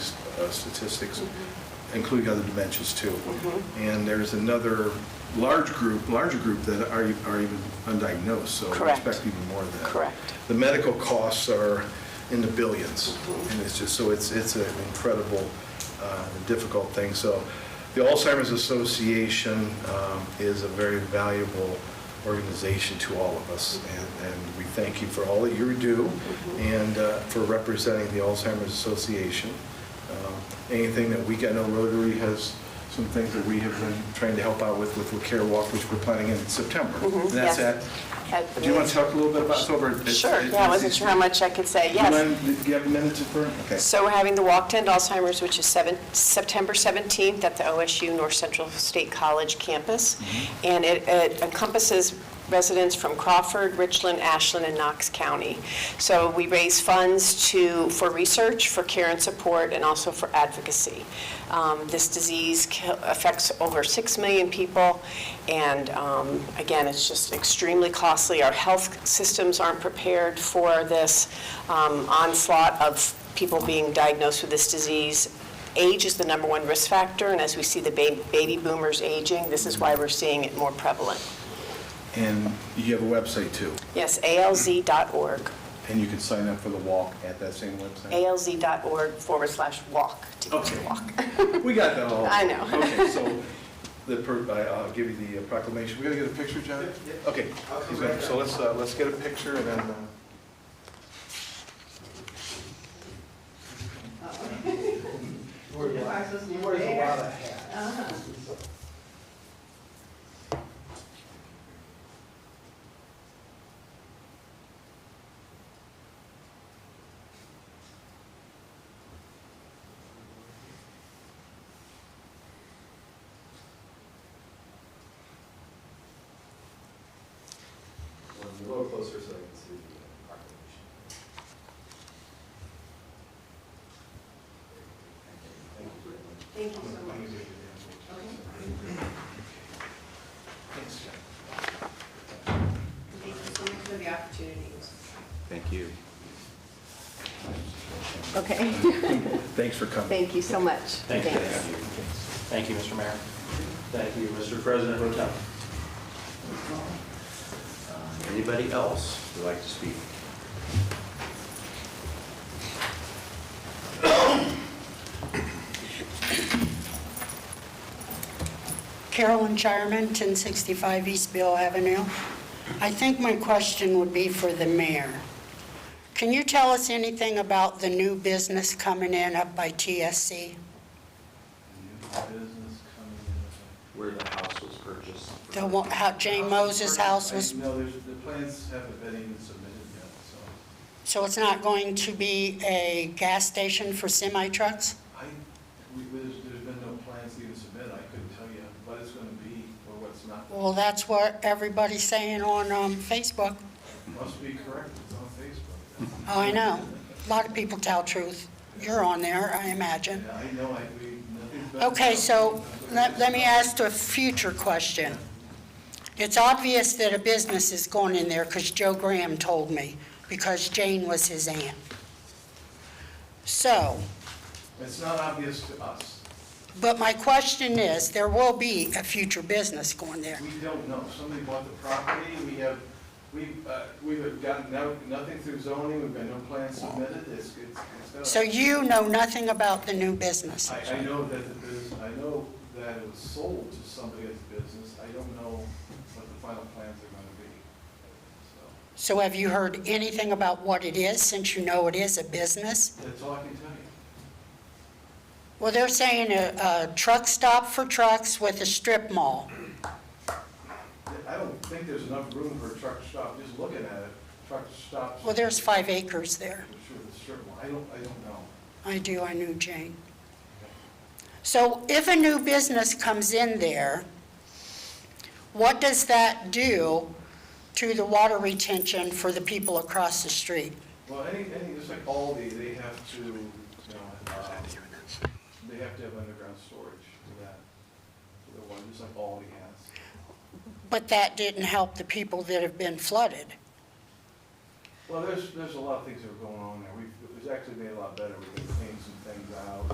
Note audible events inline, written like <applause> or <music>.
uh, statistics, Mm-hmm. including other dementias too. And there's another large group, larger group that are are even undiagnosed, so we Correct. expect even more of that. Correct. The medical costs are in the billions, and it's just, so it's, it's an incredible, uh, difficult thing. So the Alzheimer's Association um, is a very valuable organization to all of us, and, and we thank you for all that you do and uh, for representing the Alzheimer's Association. Um, Anything that we, I know Rotary has some things that we have been trying to help out with, with the Care Walk, which we're planning in September. And that's yes. At the at, do you want to meeting. talk a little bit about, it's over at- Sure, at- yeah, I wasn't sure how much I could say, yes. do you mind- do you have a minute to burn? Okay. So we're having the Walk to End Alzheimer's, which is seven- September 17th at the OSU North Central State College campus. And it it encompasses residents from Crawford, Richland, Ashland, and Knox County. So we raise funds to, for research, for care and support, and also for advocacy. Um, This disease kill- affects over 6 million people, and um, again, it's just extremely costly. Our health systems aren't prepared for this um, onslaught of people being diagnosed with this disease. Age is the number one risk factor, and as we see the ba- baby boomers aging, this is why we're seeing it more prevalent. And you have a website too, Yes, alz.org, and you can sign up for the walk at that same website? alz.org forward slash walk, to get to Okay. <laughs> walk. We got that all. I know. Okay, so the, per- I- I'll give you the uh, proclamation. We gotta get a picture, John? Okay. he's gonna- So let's, uh, let's get a picture and then. uh, Wears a lot- He wears a lot of hats. Um, A little closer so I can see the population. Thank you very much. Thank you so much for the opportunities. Thank you. Okay, <laughs> Thanks for coming. thank you so much. Thank you. Thank you, Mr. Mayor. Thank you, Mr. President Pro Tem. Uh, Anybody else would like to speak? Carolyn Shireman, 1065 East Bill Avenue. I think my question would be for the mayor. Can you tell us anything about the new business coming in up by TSC? Where the house was purchased. The, one- how Jane Moses' house was, No, there's, the plans haven't been even submitted yet, so so it's not going to be a gas station for semi trucks? I, we, there's, there's been no plans even submitted, I couldn't tell you what it's gonna be or what's not. Well, that's what everybody's saying on um, Facebook. Must be correct, it's on Facebook. Oh, I know. A lot of people tell truth. You're on there, I imagine. Yeah, I know, I, we, nothing's been. Okay, so let, let me ask a future question. It's obvious that a business is going in there because Joe Graham told me, because Jane was his aunt. So, It's not obvious to us, but my question is, there will be a future business going there. we don't know, somebody bought the property, we have, we, uh, we have gotten no, nothing through zoning, we've got no plans submitted, it's, it's, it's. not- So you know nothing about the new business. I, I know that the business, I know that it was sold to somebody as a business, I don't know what the final plans are gonna be, so, So have you heard anything about what it is, since you know it is a business? that's all I can tell you. Well, they're saying a, a truck stop for trucks with a strip mall. I don't think there's enough room for a truck stop, just looking at it, truck stops. Well, there's five acres there. I'm Sure, the strip mall, I don't, I don't know. I do, I knew Jane. So if a new business comes in there, what does that do to the water retention for the people across the street? Well, any, any, just like Aldi, they have to, you know, um, they have to have underground storage for that, for the one, just like Aldi has. But that didn't help the people that have been flooded. Well, there's, there's a lot of things that are going on there. We've, it's actually made a lot better. We've cleaned some things out.